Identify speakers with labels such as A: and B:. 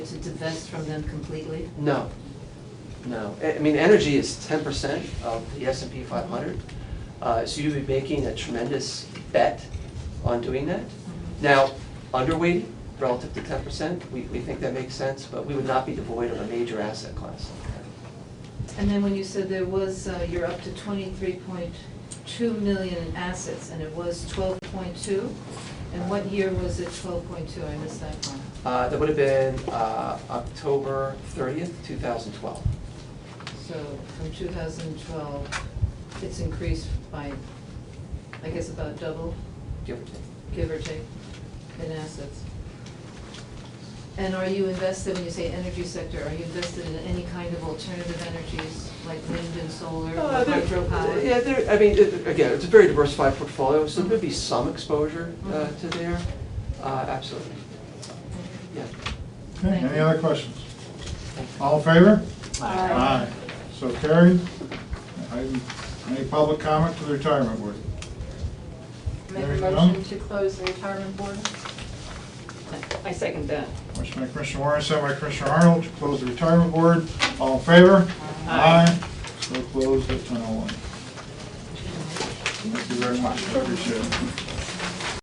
A: To divest from them completely?
B: No, no. I I mean, energy is ten percent of the S and P five hundred. Uh, so you'd be making a tremendous bet on doing that. Now, underweighting relative to ten percent, we, we think that makes sense, but we would not be devoid of a major asset class.
A: And then when you said there was, uh, you're up to twenty-three point two million in assets, and it was twelve point two? And what year was it twelve point two? I missed that one.
B: Uh, that would have been, uh, October thirtieth, two thousand twelve.
A: So from two thousand twelve, it's increased by, I guess, about double,
B: Give or take.
A: give or take, in assets. And are you invested, when you say energy sector, are you invested in any kind of alternative energies, like wind and solar,
B: Uh,
A: or
B: there-
A: hydropower?
B: Yeah, there, I mean, it- again, it's a very diversified portfolio, so there'd be some exposure uh,
A: Mhm.
B: to there, Uh, absolutely, yeah.
C: Okay,
A: Thank
C: any
A: you.
C: other questions? All in favor?
A: Aye.
C: So carried. Item- Any public comment to the retirement board?
D: Make
C: There you
D: a
C: go.
D: motion to close the retirement board?
A: I second that.
C: Motion by Commissioner Warren, sent by Commissioner Arnold to close the retirement board. All in favor? Aye. oh So closed at 10:01. Thank you very much, I appreciate it.